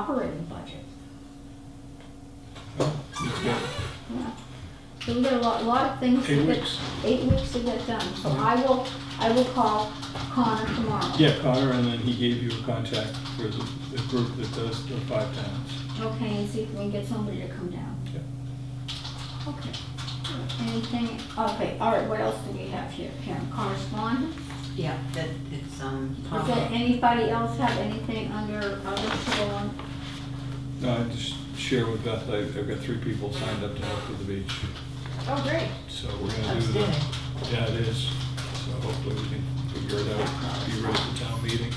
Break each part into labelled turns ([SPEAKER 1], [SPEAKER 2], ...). [SPEAKER 1] operating budget.
[SPEAKER 2] It's got
[SPEAKER 1] So we got a lot, lot of things. to
[SPEAKER 2] Eight
[SPEAKER 1] get-
[SPEAKER 2] weeks.
[SPEAKER 1] Eight weeks to get done, so
[SPEAKER 2] Okay.
[SPEAKER 1] I will, I will call Connor tomorrow.
[SPEAKER 2] Yeah, Connor, and then he gave you a contact for the, the group that does the five towns.
[SPEAKER 1] Okay, and see if we can get somebody to come down.
[SPEAKER 2] Yep.
[SPEAKER 1] Okay. Anything, okay, all right, what else do we have here, Karen, correspondence?
[SPEAKER 3] Yeah, that it's, um,
[SPEAKER 1] Does that- anybody else have anything under, under forum?
[SPEAKER 2] No, I just share with Beth, I- I've got three people signed up to help with the beach,
[SPEAKER 3] Oh, great.
[SPEAKER 2] so we're gonna do
[SPEAKER 3] Outstanding.
[SPEAKER 2] that. Yeah, it is, so hopefully we can figure it out, be ready for town meeting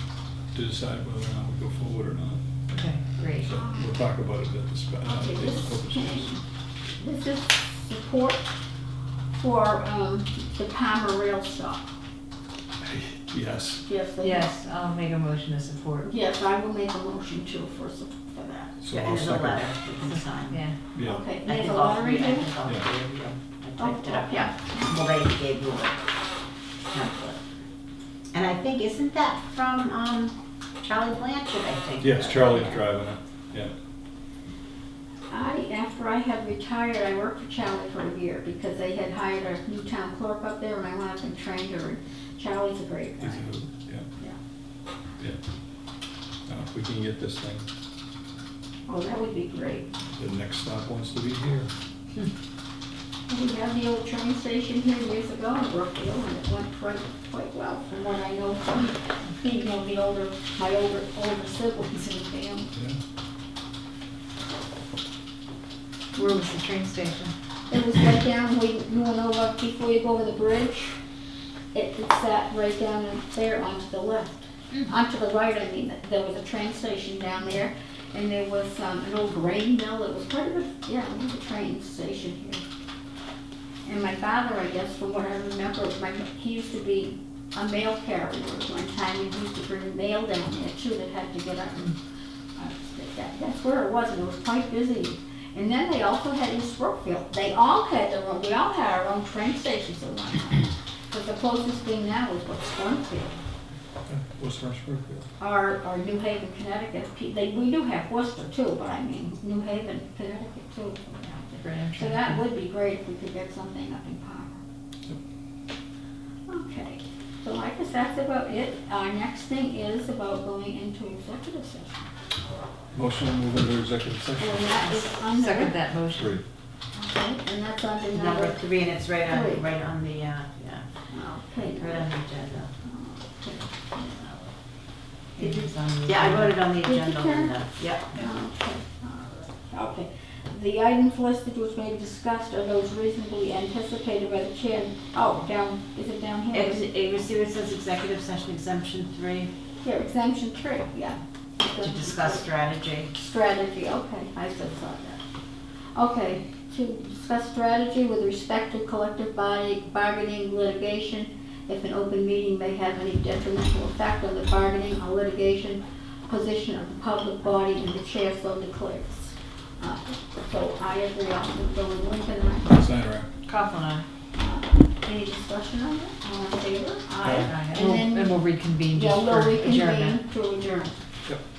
[SPEAKER 2] to decide whether or not we go forward or not.
[SPEAKER 3] Okay, great.
[SPEAKER 2] So we'll talk about it at the, spe- uh,
[SPEAKER 1] Okay,
[SPEAKER 2] at the
[SPEAKER 1] this is,
[SPEAKER 2] focus groups.
[SPEAKER 1] this is support for, um, the Palmer Rail Stop.
[SPEAKER 2] Yes,
[SPEAKER 1] Yes, they-
[SPEAKER 3] Yes, I'll make a motion to support.
[SPEAKER 1] Yes, I will make a motion to, for, sup- for that.
[SPEAKER 2] so
[SPEAKER 4] Yeah,
[SPEAKER 2] I'll
[SPEAKER 4] there's a
[SPEAKER 2] second.
[SPEAKER 4] letter you can sign.
[SPEAKER 3] Yeah.
[SPEAKER 2] Yeah,
[SPEAKER 1] Okay,
[SPEAKER 4] I
[SPEAKER 1] there's
[SPEAKER 4] think
[SPEAKER 1] a
[SPEAKER 4] all
[SPEAKER 1] lottery
[SPEAKER 4] three, I
[SPEAKER 1] here?
[SPEAKER 4] think all three of you. I
[SPEAKER 1] Oh,
[SPEAKER 4] typed it up.
[SPEAKER 1] yeah.
[SPEAKER 4] Well, they gave you a template. And I think, isn't that from, um, Charlie Blanchard, I think?
[SPEAKER 2] yes, Charlie's driving it,
[SPEAKER 1] I, after I had retired, I worked for Charlie for a year because they had hired a new town clerk up there and I went up and trained her. and Charlie's a great guy.
[SPEAKER 2] he's a hoot, yeah.
[SPEAKER 1] Yeah.
[SPEAKER 2] Yeah. Now, if we can get this thing
[SPEAKER 1] Oh, that would be great.
[SPEAKER 2] The next stop wants to be here.
[SPEAKER 1] We had the old train station here years ago in Brookfield and it went quite, quite well from what I know from, you know, the older, my older, older siblings in the family.
[SPEAKER 3] Where was the train station?
[SPEAKER 1] It was right down, we, you know, like before you go over the bridge, it, it's that right down there onto the left. Onto the right, I mean, there was a train station down there, and there was, um, an old grain mill, it was part of the, yeah, it was a train station here. And my father, I guess, from what I remember, my, he used to be a mail carrier at one time, he used to bring mail down there too, that had to get up and, uh, that, that's where it was, and it was quite busy. And then they also had East Brookfield. They all had their own, we all had our own train stations at one time. But the closest thing now is what's Springfield,
[SPEAKER 2] What's North Brookfield?
[SPEAKER 1] or, or New Haven, Connecticut. Pe- They, we do have Worcester too, but I mean, New Haven, Connecticut too.
[SPEAKER 3] Grand
[SPEAKER 1] So that would be great if we could get something up in Palmer. Okay, so I guess that's about it. Our next thing is about going into executive session.
[SPEAKER 2] Motion to move into executive
[SPEAKER 1] And
[SPEAKER 2] session.
[SPEAKER 1] that is under,
[SPEAKER 3] Second
[SPEAKER 1] okay,
[SPEAKER 3] that motion.
[SPEAKER 2] Three.
[SPEAKER 1] and that's under
[SPEAKER 4] Number
[SPEAKER 1] number,
[SPEAKER 4] three, and it's right
[SPEAKER 1] Three.
[SPEAKER 4] on, right on the, uh, yeah,
[SPEAKER 1] okay,
[SPEAKER 4] right on the agenda.
[SPEAKER 3] It is on the-
[SPEAKER 4] Yeah, I wrote it on the
[SPEAKER 1] Did you
[SPEAKER 4] agenda,
[SPEAKER 1] turn?
[SPEAKER 4] Linda. Yep.
[SPEAKER 1] Okay. The items listed which may be discussed are those reasonably anticipated by the chair. Oh, down, is it down here?
[SPEAKER 4] Ex- It was, see where it says executive session exemption three,
[SPEAKER 1] Here, exemption three, yeah.
[SPEAKER 4] to discuss strategy.
[SPEAKER 1] Strategy, okay, I still saw that. Okay, to discuss strategy with respect to collective body bargaining litigation, if an open meeting may have any detrimental effect on the bargaining or litigation position of the public body and the chair so declares. Uh, So I agree on the Bill and Lincoln, and
[SPEAKER 2] Snyder,
[SPEAKER 4] Coughlin, aye.
[SPEAKER 1] I- any discussion on that, all in favor? Aye.
[SPEAKER 3] And
[SPEAKER 1] And
[SPEAKER 3] we'll-
[SPEAKER 1] then,
[SPEAKER 3] and we'll reconvene
[SPEAKER 1] yeah,
[SPEAKER 3] just
[SPEAKER 1] we'll
[SPEAKER 3] for adjournment.
[SPEAKER 1] reconvene to adjourn.
[SPEAKER 2] Yep.